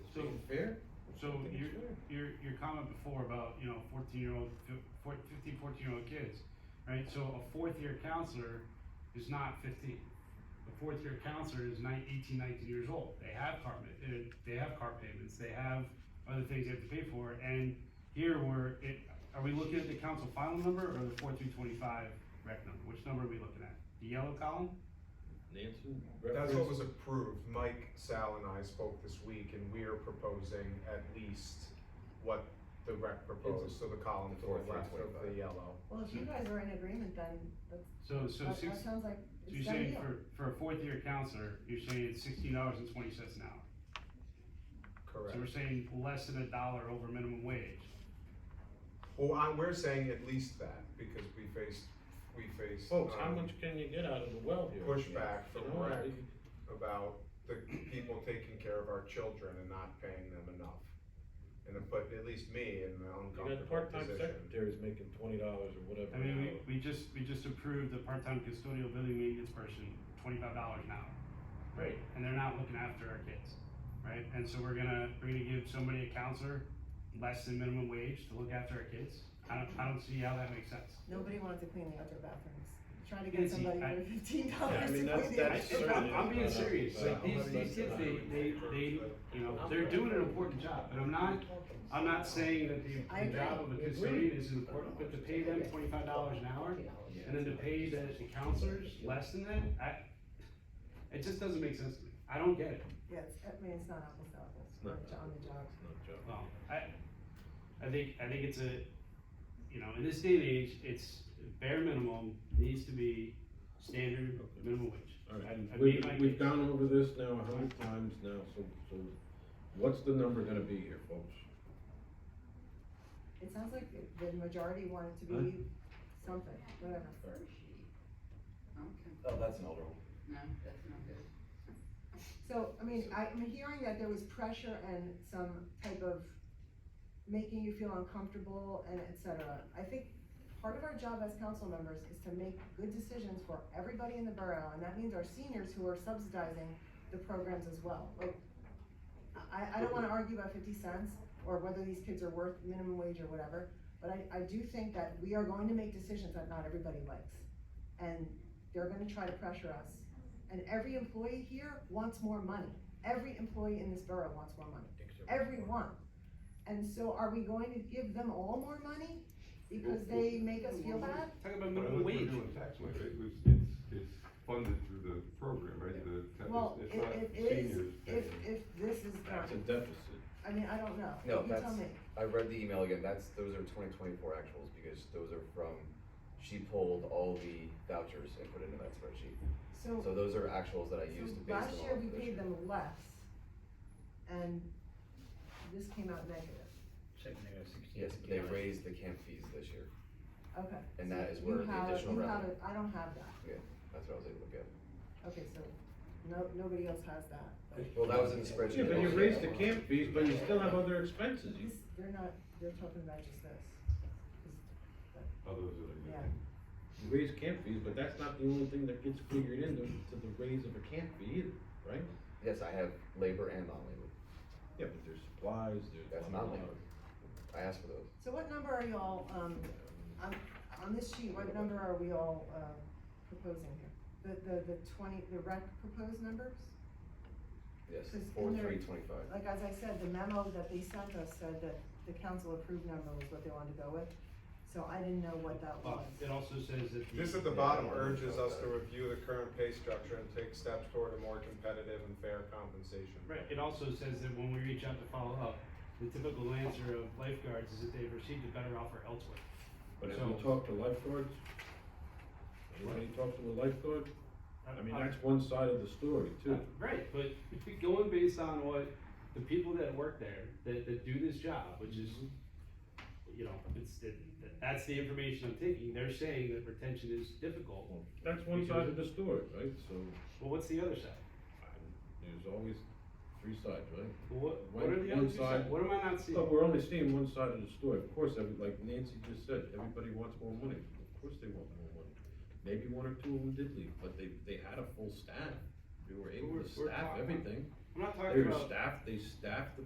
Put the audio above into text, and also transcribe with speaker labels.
Speaker 1: fair.
Speaker 2: So
Speaker 1: I think
Speaker 2: your,
Speaker 1: it's fair.
Speaker 2: your, your comment before about, you know, fourteen year old, fifteen, fourteen year old kids, right? So a fourth year counselor is not fifteen. A fourth year counselor is nine, eighteen, nineteen years old. They have car, ma- uh, they have car payments, they have other things they have to pay for. And here we're, it, are we looking at the council final number or the four through twenty-five rec number? Which number are we looking at? The yellow column?
Speaker 3: Nancy?
Speaker 4: That's what
Speaker 3: reference-
Speaker 4: was approved. Mike, Sal and I spoke this week and we are proposing at least what the rec proposed, so the column to
Speaker 3: Four, three,
Speaker 4: the left of the
Speaker 3: twenty-five.
Speaker 4: yellow.
Speaker 5: Well, if you guys are in agreement, then that's,
Speaker 2: So, so
Speaker 5: that-
Speaker 2: six,
Speaker 5: that sounds like
Speaker 2: so
Speaker 5: it's
Speaker 2: you're
Speaker 5: done
Speaker 2: saying
Speaker 5: deal.
Speaker 2: for, for a fourth year counselor, you're saying it's sixteen dollars and twenty cents an hour? So we're
Speaker 4: Correct.
Speaker 2: saying less than a dollar over minimum wage.
Speaker 4: Well, I, we're saying at least that because we faced, we faced.
Speaker 3: Folks, how
Speaker 4: um,
Speaker 3: much can you get out of the well here?
Speaker 4: Pushback
Speaker 3: You
Speaker 4: from
Speaker 3: know,
Speaker 4: rec.
Speaker 3: you-
Speaker 4: about the people taking care of our children and not paying them enough. And it put at least me in an
Speaker 3: You got
Speaker 4: uncomfortable
Speaker 3: part-time
Speaker 4: position.
Speaker 3: secretaries making twenty dollars or whatever.
Speaker 2: I mean, we, we just, we just approved the part-time custodial building maintenance person, twenty-five dollars an hour,
Speaker 3: Right,
Speaker 2: and they're not looking after our kids, right? And so we're gonna, we're gonna give somebody a counselor less than minimum wage to look after our kids? I don't, I don't see how that makes sense.
Speaker 5: Nobody wanted to clean the outdoor bathrooms. Try to
Speaker 2: Yeah,
Speaker 5: get
Speaker 2: see,
Speaker 5: somebody
Speaker 2: I-
Speaker 5: for fifteen
Speaker 3: Yeah, I
Speaker 5: dollars to
Speaker 3: mean,
Speaker 5: clean the
Speaker 3: that's-
Speaker 5: outdoor.
Speaker 3: that's certainly-
Speaker 2: I'm, I'm being serious,
Speaker 3: Uh,
Speaker 2: like, these, these kids, they, they, they, you know, they're doing an important job, and I'm not, I'm not saying that the, the
Speaker 5: I agree.
Speaker 2: job of a custodian is important, but to pay them twenty-five dollars an hour, And then to pay the, the counselors less than that, I, it just doesn't make sense to me. I don't get it.
Speaker 5: Yes, I mean, it's not apples to apples,
Speaker 3: It's not.
Speaker 5: it's on the job.
Speaker 3: it's not Joe.
Speaker 2: Well, I, I think, I think it's a, you know, in this day and age, it's bare minimum needs to be standard minimum wage.
Speaker 3: All right.
Speaker 2: I- I
Speaker 3: We've,
Speaker 2: made my
Speaker 3: we've
Speaker 2: case.
Speaker 3: gone over this now a hundred times now, so, so what's the number gonna be here, folks?
Speaker 5: It sounds like the- the majority wanted to
Speaker 3: Huh?
Speaker 5: be something, whatever.
Speaker 6: Okay,
Speaker 7: Oh, that's an older one.
Speaker 6: no, that's not good.
Speaker 5: So, I mean, I, I'm hearing that there was pressure and some type of making you feel uncomfortable and et cetera. I think part of our job as council members is to make good decisions for everybody in the borough, and that means our seniors who are subsidizing the programs as well. Like, I, I don't wanna argue about fifty cents or whether these kids are worth minimum wage or whatever, but I, I do think that we are going to make decisions that not everybody likes. And they're gonna try to pressure us. And every employee here wants more money. Every employee in this borough wants more money. Everyone. And so are we going to give them all more money because they make us feel bad?
Speaker 2: Talk about
Speaker 8: Well,
Speaker 2: minimum
Speaker 8: look, we're
Speaker 2: wage.
Speaker 8: doing tax money, right? It was- It's, it's funded through the program, right? The, ta-
Speaker 5: Well,
Speaker 8: it's
Speaker 5: it,
Speaker 8: not
Speaker 5: it is,
Speaker 8: seniors.
Speaker 5: if,
Speaker 8: paying.
Speaker 5: if this is not,
Speaker 3: That's a deficit.
Speaker 5: I mean, I don't know.
Speaker 7: No,
Speaker 5: You tell
Speaker 7: that's-
Speaker 5: me.
Speaker 7: I read the email again, that's, those are twenty twenty-four actuals, because those are from, she pulled all the vouchers and put it into that spreadsheet.
Speaker 5: So,
Speaker 7: So those are actuals that I
Speaker 5: so
Speaker 7: used to base
Speaker 5: last
Speaker 7: them
Speaker 5: year
Speaker 7: off
Speaker 5: we
Speaker 7: of this
Speaker 5: paid them less and this came out negative.
Speaker 7: Yes, but they raised the camp fees this year,
Speaker 5: Okay.
Speaker 7: And
Speaker 5: so
Speaker 7: that is
Speaker 5: you
Speaker 7: where the
Speaker 5: have-
Speaker 7: additional
Speaker 5: you have
Speaker 7: revenue-
Speaker 5: it. I don't have that.
Speaker 7: that's what I was able to get.
Speaker 5: Okay, so no, nobody else has that. but
Speaker 7: Well, that was in the spreadsheet.
Speaker 3: Yeah, but you
Speaker 7: also.
Speaker 3: raised the camp fees, but you still have other expenses. You-
Speaker 5: This, they're not, they're talking about just this.
Speaker 8: Others that are.
Speaker 5: Yeah.
Speaker 3: You raise camp fees, but that's not the only thing that gets figured into, to the raise of a camp fee either, right?
Speaker 7: Yes, I have labor and non-labor,
Speaker 3: Yeah, but there's supplies, there's.
Speaker 7: That's not labor. I asked for those.
Speaker 5: So what number are y'all, um, on, on this sheet, what number are we all, um, proposing here? The, the, the twenty, the rec proposed numbers?
Speaker 7: Yes,
Speaker 5: Because in
Speaker 7: four,
Speaker 5: there-
Speaker 7: three, twenty-five.
Speaker 5: Like, as I said, the memo that they sent us said that the council approved number was what they wanted to go with, so I didn't know what that
Speaker 2: But
Speaker 5: was.
Speaker 2: it also says that. the-
Speaker 4: This at the bottom urges us to review the current pay structure and take steps toward a more competitive and fair compensation.
Speaker 2: Right, it also says that when we reach out to follow up, the typical answer of lifeguards is that they've received a better offer elsewhere.
Speaker 3: But if
Speaker 2: So-
Speaker 3: you talk to lifeguards, anybody talk to a lifeguard, I mean, that's one side of the story too.
Speaker 2: Right, but if you're going based on what the people that work there, that, that do this job, which is, you know, it's, it, that's the information I'm taking, they're saying that retention is difficult.
Speaker 3: That's one side of the story, right? So
Speaker 2: Well, what's the other side?
Speaker 3: I'm- there's always three sides, right?
Speaker 2: Well, What, what are the
Speaker 3: One
Speaker 2: other two sides?
Speaker 3: side-
Speaker 2: What am I not seeing?
Speaker 3: But we're only seeing one side of the story. Of course, every, like Nancy just said, everybody wants more money. Of course they want more money. Maybe one or two of them did leave, but they, they had a full staff. They were able
Speaker 2: We're-
Speaker 3: to
Speaker 2: we're
Speaker 3: staff
Speaker 2: talking-
Speaker 3: everything.
Speaker 2: I'm not
Speaker 3: They
Speaker 2: talking
Speaker 3: were
Speaker 2: about.
Speaker 3: staffed, they staffed the